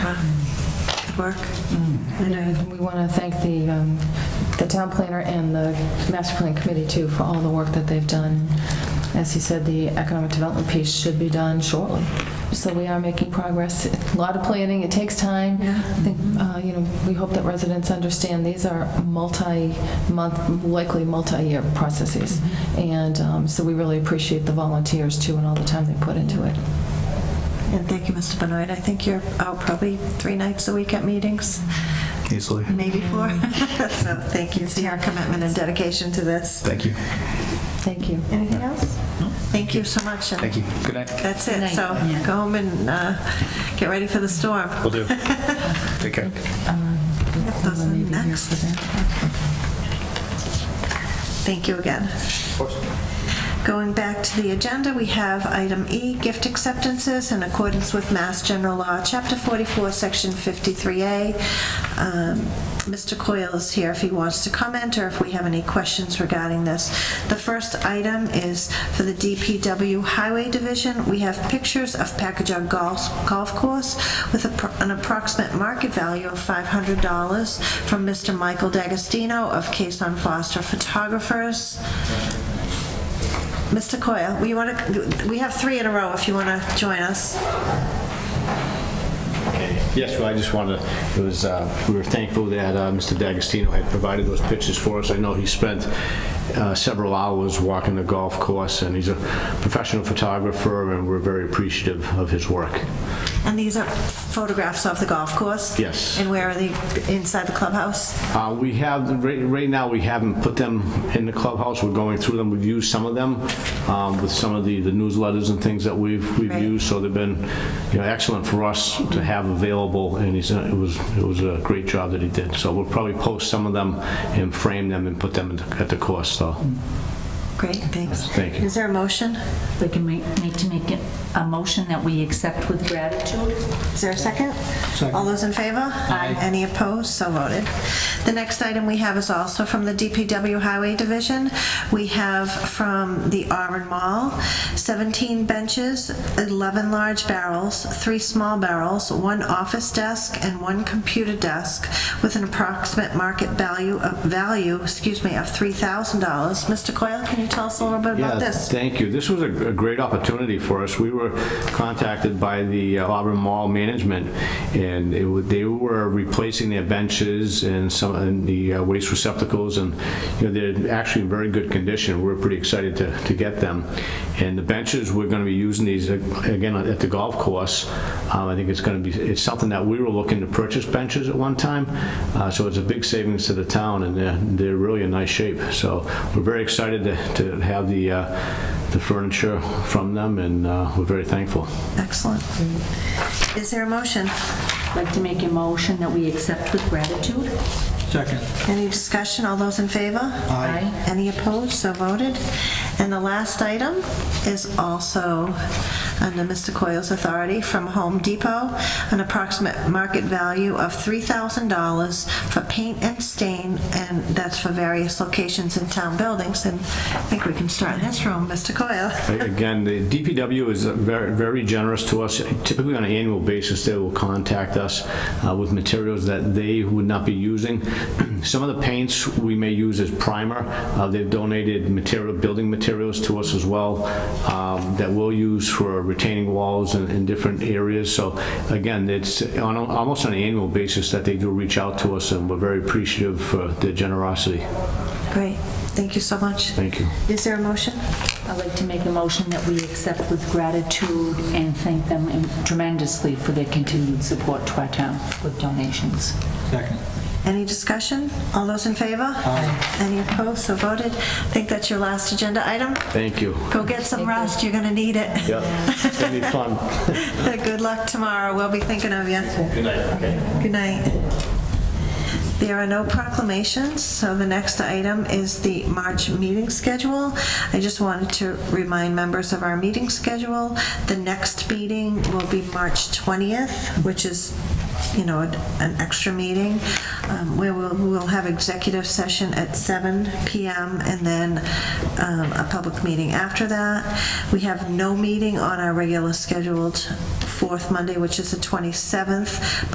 Um, work. Mm. uh, I know. And we want to thank the, um, the town planner and the master plan committee too for all the work that they've done. As he said, the economic development piece should be done shortly. So we are making progress. A lot of planning, it takes time. I think, uh, you know, we hope that residents understand these are multi-month, likely multi-year processes. And um, so we really appreciate the volunteers too and all the time they put into it. And thank you, Mr. Benoit. I think you're out probably three nights a week at meetings, easily. maybe four. Mm. So thank you for your commitment and dedication to this. Thank you. Thank you. Anything else? Thank you so much. and Thank you. Good night. That's it. So go home and uh, get ready for the storm. Will do. Take care. Yep, Those are next. Thank you again. Going back to the agenda, we have item E, gift acceptances in accordance with Mass General Law, Chapter 44, Section 53A. Um, Mr. Coyle is here if he wants to comment or if we have any questions regarding this. The first item is for the DPW Highway Division. We have pictures of Packagon Golf Golf Course with a pro- an approximate market value of $500 from Mr. Michael D'Agostino of Case on Foster Photographers. Mr. Coyle, we want to, we have three in a row if you want to join us. Yes, well, I just wanted, to- it was, uh, we were thankful that uh, Mr. D'Agostino had provided those pictures for us. I know he spent uh, several hours walking the golf course, and he's a professional photographer, and we're very appreciative of his work. And these are photographs of the golf course? Yes. And where are they? Inside the clubhouse? Uh, We have, right right now, we haven't put them in the clubhouse, we're going through them, we've used some of them um, with some of the the newsletters and things that we've we've Right. used, so they've been, you know, excellent for us to have available, and he's, uh, it was, it was a great job that he did. So we'll probably post some of them and frame them and put them in the- at the course, so, Great, thanks. thank you. Is there a motion? We can make, need to make it a motion that we accept with gratitude. Is there a second? All those in favor? Aye. Any opposed? So voted. The next item we have is also from the DPW Highway Division. We have from the Auburn Mall, 17 benches, 11 large barrels, three small barrels, one office desk, and one computer desk with an approximate market value of, value, excuse me, of $3,000. Mr. Coyle, can you tell us a little bit about Yeah, this? thank you. This was a a great opportunity for us. We were contacted by the uh, Auburn Mall Management, and it wa- they were replacing their benches and some, and the uh, waste receptacles, and, you know, they're actually in very good condition. We're pretty excited to to get them. And the benches, we're going to be using these, uh, again, at the golf course. Um, I think it's going to be, it's something that we were looking to purchase benches at one time, uh, so it's a big savings to the town, and they're, they're really in nice shape. So we're very excited to, to have the, uh, the furniture from them, and uh, we're very thankful. Excellent. Is there a motion? I'd Like to make a motion that we accept with gratitude. Second. Any discussion? All those in favor? Aye. Any opposed? So voted. And the last item is also under Mr. Coyle's authority from Home Depot, an approximate market value of $3,000 for paint and stain, and that's for various locations in town buildings. And I think we can start in this room, Mr. Coyle. Again, the DPW is very, very generous to us. Typically, on an annual basis, they will contact us uh, with materials that they would not be using. Some of the paints we may use as primer. Uh, They've donated material, building materials to us as well um, that we'll use for retaining walls in in different areas. So again, it's on, a- almost on an annual basis that they do reach out to us, and we're very appreciative for their generosity. Great. Thank you so much. Thank you. Is there a motion? I'd like to make a motion that we accept with gratitude and thank them tremendously for their continued support to our town with donations. Second. Any discussion? All those in favor? Aye. Any opposed? So voted. I think that's your last agenda item. Thank you. Go get some rest, you're going to need it. Yeah, it's gonna be fun. Good luck tomorrow, we'll be thinking of you. Good night. Good night. There are no proclamations, so the next item is the March meeting schedule. I just wanted to remind members of our meeting schedule. The next meeting will be March 20th, which is, you know, an- an extra meeting, um, where we'll, we'll have executive session at 7 PM and then um, a public meeting after that. We have no meeting on our regular scheduled fourth Monday, which is the 27th,